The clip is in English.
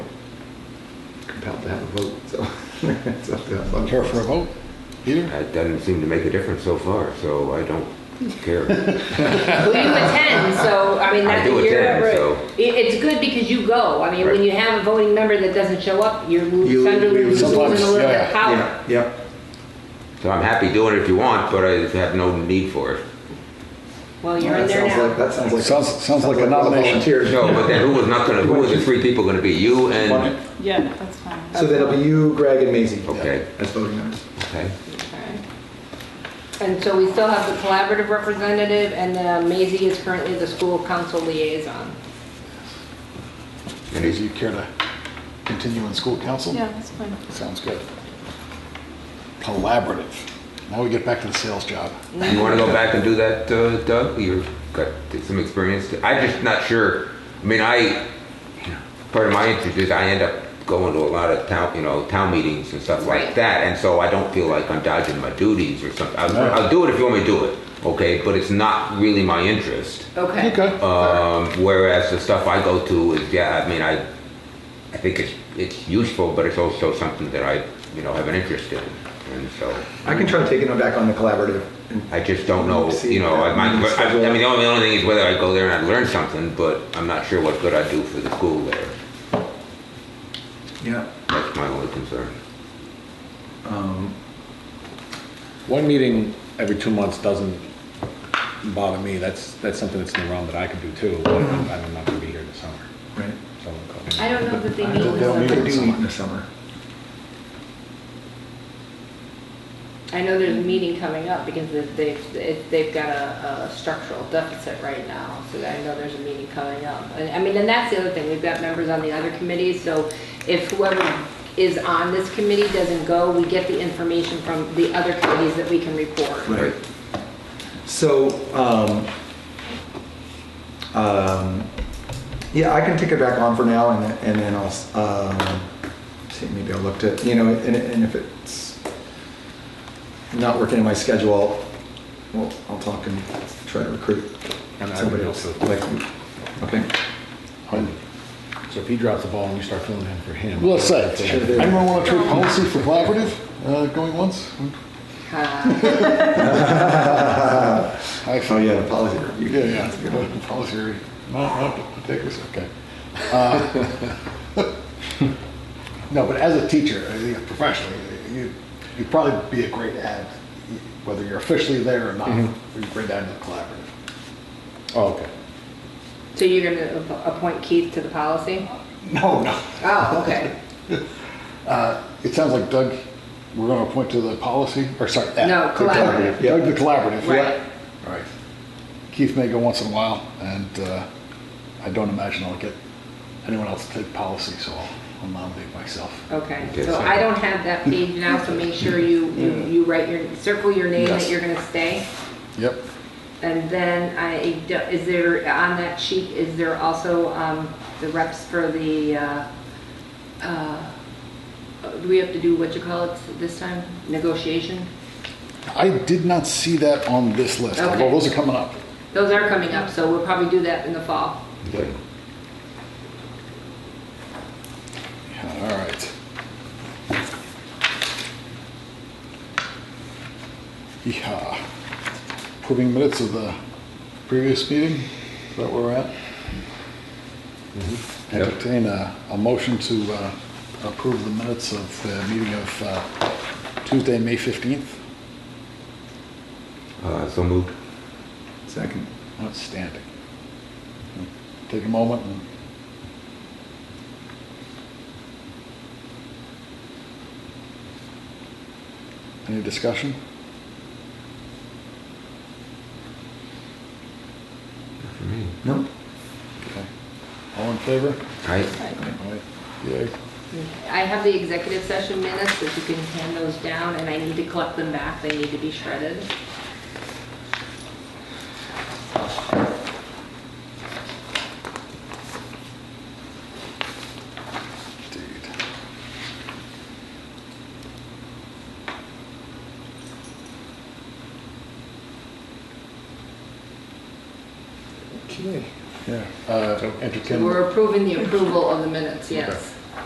compelled to have a vote, so it's up to us. Care for a vote? Either? That doesn't seem to make a difference so far, so I don't care. Well, you attend, so, I mean, I that, do you're. attend, right. so- It, it's good because you go. I mean, when Right. you have a voting member that doesn't show up, you're You- lo- kind of we losing a lose- little bit yeah, of power. Yeah, Yep, So I'm happy doing it if you want, but I just have no need for it. Well, you're that in there sounds like, now. that sounds like. Sounds- sounds like a nomination. Volunteer. No, but then who was not gonna, who was the three people gonna be? You and, Yeah, that's fine. So that'll be you, Greg, and Maisie. Okay. As voting members. okay, Okay. And so we still have the collaborative representative and uh, Maisie is currently the school council liaison. Does you care to continue in school council? Yeah, that's fine. Sounds good. Collaborative. Now we get back to the sales job. you wanna go back and do that, uh, Doug? You've got some experience. I'm just not sure. I mean, I, part of my interest is I end up going to a lot of town, you know, town meetings and stuff like Right. that, and so I don't feel like I'm dodging my duties or something. I'll, No. I'll do it if you want me to do it, okay? But it's not really my interest. Okay. Okay. Um, whereas the stuff I go to is, yeah, I mean, I, I think it's, it's useful, but it's also something that I, you know, have an interest in. And so, I can try taking them back on the collaborative. and- I just don't know, you know, I might, I, I mean, the only, the only thing is whether I go there and I learn something, but I'm not sure what good I do for the school there. Yeah. That's my only concern. Um, One meeting every two months doesn't bother me. That's, that's something that's in the realm that I could do too. but I'm not gonna be here this summer. Right. so I'm I calling. don't know that they I meet don't- with they don't They meet them. with- do meet in the summer. I know there's a meeting coming up because they've, they've, it- they've got a, a structural deficit right now. So I know there's a meeting coming up. And I mean, and that's the other thing, we've got members on the other committees, so if whoever is on this committee doesn't go, we get the information from the other committees that we can report. Right. So, um, um, yeah, I can take it back on for now and, then- and then I'll, s- um, see, maybe I'll look to, you know, and, and if it's not working in my schedule, well, I'll talk and try to recruit And I somebody would else. also- Like, okay. So if he drops the ball and you start filling in for him. Let's say, Okay. anyone want to trade policy for collaborative? Uh, going once? Uh, I Oh, yeah, the policy review. Yeah, yeah. Policy review. No, no, take this, okay. Uh, No, but as a teacher, I think professionally, you, you'd probably be a great ad, whether you're officially there or not, you're a great ad in the collaborative. Mm-hmm. Oh, okay. So you're gonna app- appoint Keith to the policy? No, no. Oh, okay. Uh, It sounds like Doug, we're going to point to the policy, or sorry. ad, No, the collaborative. Doug, the collaborative. yeah. Right. All right. Keith may go once in a while, and uh, I don't imagine I'll get anyone else to take policy, so I'll- I'll nominate myself. Okay, Okay, so so- I don't have that page now, so make sure you, you you write your, circle your name that Yes. you're gonna stay. Yep. And then I, do- is there, on that sheet, is there also um, the reps for the, uh, uh, do we have to do what you call it this time? Negotiation? I did not see that on this list, Okay. although those are coming up. Those are coming up, so we'll probably do that in the fall. Okay. Yeah, All right. Yeah. Approving minutes of the previous meeting, is that where we're at? Yep. Entertain a, a motion to uh, approve the minutes of the meeting of uh, Tuesday, May 15th. Uh, so moved. Second. Outstanding. Take a moment and Any discussion? No? Okay. All in favor? Right? All right. Yay. I have the executive session minutes, if you can hand those down, and I need to collect them back, they need to be shredded. Indeed. Okay. Yeah. Uh, entertain. So we're approving the approval of the minutes, yes.